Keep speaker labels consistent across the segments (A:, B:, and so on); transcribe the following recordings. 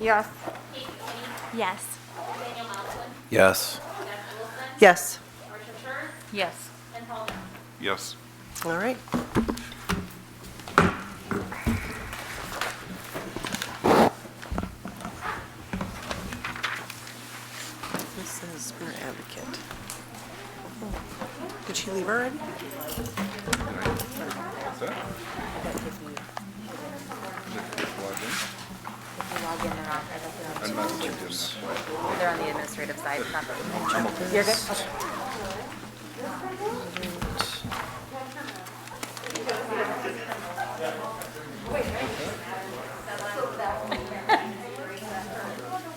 A: Yes.
B: Casey Lee,
C: Yes.
B: Daniel Malcolm,
D: Yes.
B: Jeff Wilson,
E: Yes.
B: Marcia Church,
C: Yes.
B: and Paul Miller.
F: Yes.
E: All right. This is spirit advocate. Oh, Did she leave already?
F: That's it.
A: log in, they're not, I don't
F: I'm not thinking this way.
A: know. They're on the administrative side, it's not the. You're good? Okay.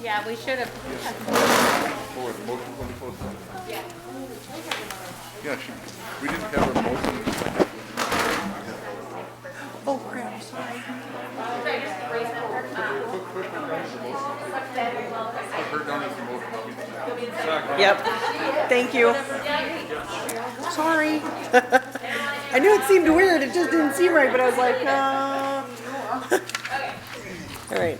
C: Yeah, we should have.
F: Forward, motion when you post it. Yeah, she, we didn't have a motion.
E: Oh, crap, I'm sorry.
F: Her down as the motion.
E: Yep. Thank you. Sorry. I knew it seemed weird. It just didn't seem right, but I was like, uh. All right.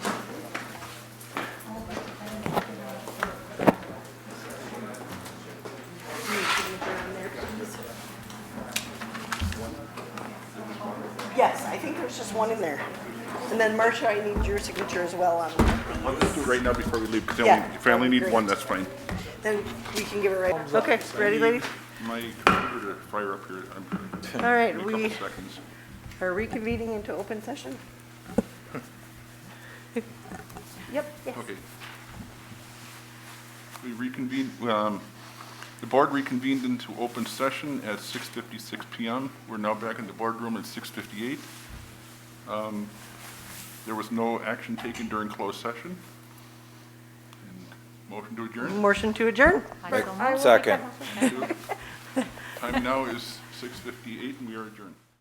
E: Yes, I think there's just one in there. And then Marcia, I need your signature as well on
F: Let's do it right now before we leave, because
E: Yeah.
F: if I only need one, that's fine.
E: Then we can give it right. Okay, ready, lady?
F: My computer to fire up here, I'm,
E: All right,
F: in a couple
E: we
F: seconds.
E: are reconvening into open session. Yep, yes.
F: Okay. We reconvene, um, the board reconvened into open session at 6:56 PM. We're now back in the boardroom at 6:58. Um, There was no action taken during closed session. And Motion to adjourn.
E: Motion to adjourn.
D: Second.
F: Time now is 6:58 and we are adjourned.